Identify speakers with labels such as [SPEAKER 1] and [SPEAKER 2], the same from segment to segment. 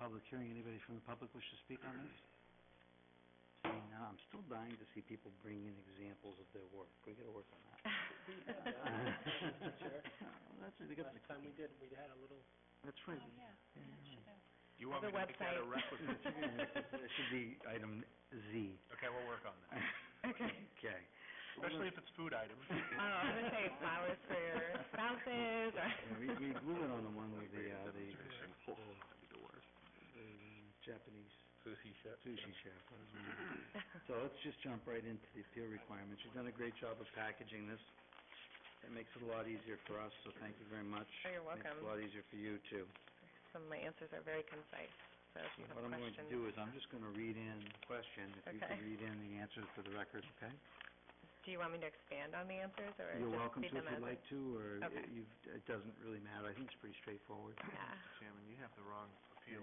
[SPEAKER 1] public hearing. Anybody from the public wish to speak on this? Seeing none, I'm still dying to see people bring in examples of their work. We gotta work on that. Well, That's, we got the
[SPEAKER 2] Last time we did, we had a little,
[SPEAKER 1] That's right. we-
[SPEAKER 3] You want me to
[SPEAKER 2] The
[SPEAKER 3] make that a
[SPEAKER 2] website.
[SPEAKER 3] requisite?
[SPEAKER 1] It should be item Z.
[SPEAKER 3] Okay, we'll work on that,
[SPEAKER 1] Okay. Okay.
[SPEAKER 3] especially if it's food items.
[SPEAKER 2] I don't know, I was gonna say flowers for your spouses or.
[SPEAKER 1] Yeah, we, we glue it on the one with the, uh, the, the, the Japanese
[SPEAKER 3] Sushi chef.
[SPEAKER 1] sushi chef. that was one of them.
[SPEAKER 2] Oh,
[SPEAKER 1] So let's just jump right into the appeal requirements. You've done a great job of packaging this. It makes it a lot easier for us, so thank you very much.
[SPEAKER 2] Oh, you're
[SPEAKER 1] Makes it a lot
[SPEAKER 2] welcome.
[SPEAKER 1] easier for you too.
[SPEAKER 2] Some of my answers are very concise, so if you have
[SPEAKER 1] What I'm going to
[SPEAKER 2] questions.
[SPEAKER 1] do is I'm just gonna read in the question, if you
[SPEAKER 2] Okay.
[SPEAKER 1] can read in the answers for the record, okay?
[SPEAKER 2] Do you want me to expand on the answers or
[SPEAKER 1] You're
[SPEAKER 2] just
[SPEAKER 1] welcome to
[SPEAKER 2] leave
[SPEAKER 1] if
[SPEAKER 2] them as?
[SPEAKER 1] you'd like to, or
[SPEAKER 2] Okay.
[SPEAKER 1] it- you've, it doesn't really matter. I think it's pretty straightforward.
[SPEAKER 2] Yeah.
[SPEAKER 3] Chairman, you have the wrong
[SPEAKER 1] Thank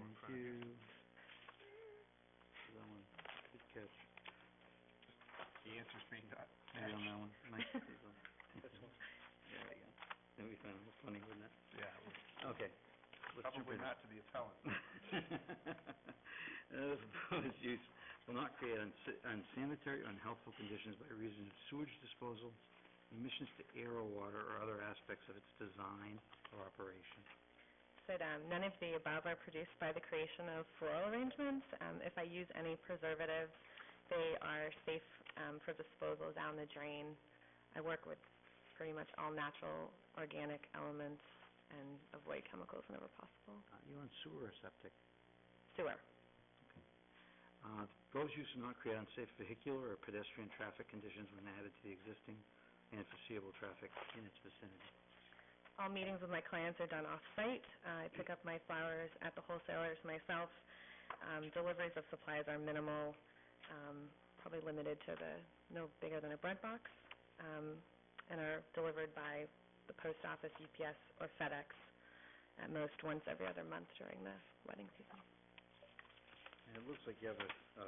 [SPEAKER 3] appeal in front of you.
[SPEAKER 1] That one, good catch.
[SPEAKER 3] The answer's being done.
[SPEAKER 1] Maybe on that one. Nice. This one. There we go. That'd be fun, funny, wouldn't it?
[SPEAKER 3] Yeah, well,
[SPEAKER 1] Okay. Let's jump
[SPEAKER 3] probably
[SPEAKER 1] in.
[SPEAKER 3] not to the appellant.
[SPEAKER 1] Uh, proposed use will not create unsa- unsanitary, unhealthful conditions by reason of sewage disposal, emissions to air or water, or other aspects of its design or operation.
[SPEAKER 2] Said, um, none of the above are produced by the creation of floral arrangements. Um, if I use any preservatives, they are safe, um, for disposal down the drain. I work with pretty much all natural, organic elements and avoid chemicals whenever possible.
[SPEAKER 1] Uh, You on sewer or septic?
[SPEAKER 2] Sewer.
[SPEAKER 1] Uh, the proposed use will not create unsafe vehicular or pedestrian traffic conditions when added to the existing and foreseeable traffic in its vicinity.
[SPEAKER 2] All meetings with my clients are done off-site. Uh, I pick up my flowers at the wholesalers myself. Um, deliveries of supplies are minimal, um, probably limited to the, no bigger than a bread box, um, and are delivered by the post office, UPS, or FedEx, at most once every other month during the wedding season.
[SPEAKER 1] And it looks like you have a, a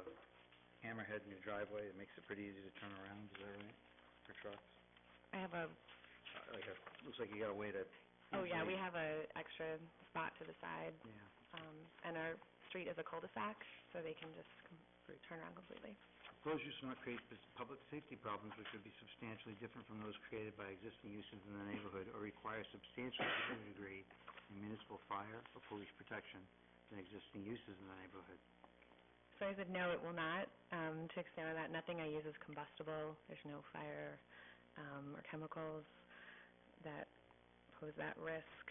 [SPEAKER 1] hammerhead in your driveway, it makes it pretty easy to turn around, is that right, for trucks?
[SPEAKER 2] I have a,
[SPEAKER 1] Uh, Like a, looks like you got a way to.
[SPEAKER 2] oh yeah, we have a extra spot to the side,
[SPEAKER 1] Yeah,
[SPEAKER 2] um, and our street is a cul-de-sac, so they can just com- turn around completely.
[SPEAKER 1] proposed use will not create pus- public safety problems which would be substantially different from those created by existing uses in the neighborhood or require substantially different degree in municipal fire or police protection than existing uses in the neighborhood.
[SPEAKER 2] So I said, no, it will not. Um, to expand on that, nothing I use is combustible. There's no fire um, or chemicals that pose that risk.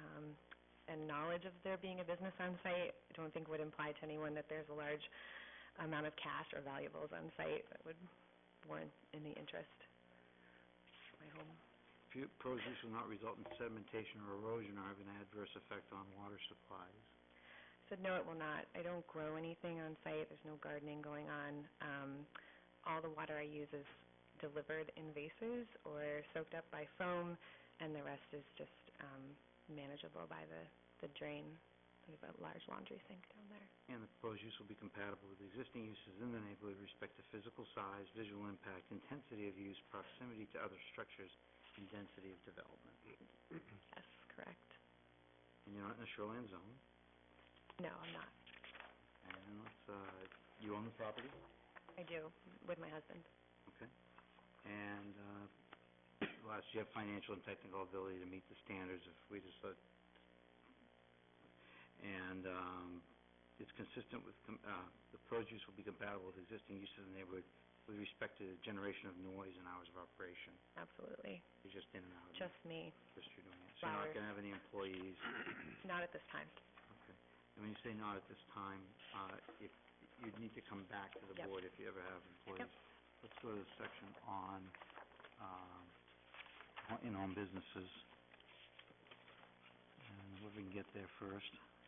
[SPEAKER 2] Um, and knowledge of there being a business on site, I don't think would imply to anyone that there's a large amount of cash or valuables on site that would warrant any interest. My home.
[SPEAKER 1] Fu- Proposed use will not result in sedimentation or erosion or have an adverse effect on water supplies.
[SPEAKER 2] Said, no, it will not. I don't grow anything on site. There's no gardening going on. Um, all the water I use is delivered in vases or soaked up by foam, and the rest is just, um, manageable by the, the drain. We have a large laundry sink down there.
[SPEAKER 1] And the proposed use will be compatible with existing uses in the neighborhood with respect to physical size, visual impact, intensity of use, proximity to other structures, and density of development.
[SPEAKER 2] Yes, correct.
[SPEAKER 1] And you're not in a shoreline zone,
[SPEAKER 2] No, I'm not.
[SPEAKER 1] and let's, uh, you own the property,
[SPEAKER 2] I do, with my husband.
[SPEAKER 1] okay? And, uh, last, you have financial and technical ability to meet the standards if we just let, and, um, it's consistent with, com- uh, the proposed use will be compatible with existing uses in the neighborhood with respect to the generation of noise and hours of operation.
[SPEAKER 2] Absolutely.
[SPEAKER 1] You're just in and out,
[SPEAKER 2] Just me.
[SPEAKER 1] just you're doing it. So you're not
[SPEAKER 2] Flowers.
[SPEAKER 1] gonna have any employees.
[SPEAKER 2] Not at this time.
[SPEAKER 1] And when you say not at this time, uh, if, you'd need to come back to the
[SPEAKER 2] Yep.
[SPEAKER 1] board if you ever have employees. Let's go to the section on, uh, um, ho- in-home businesses. And if we can get there first. Uh,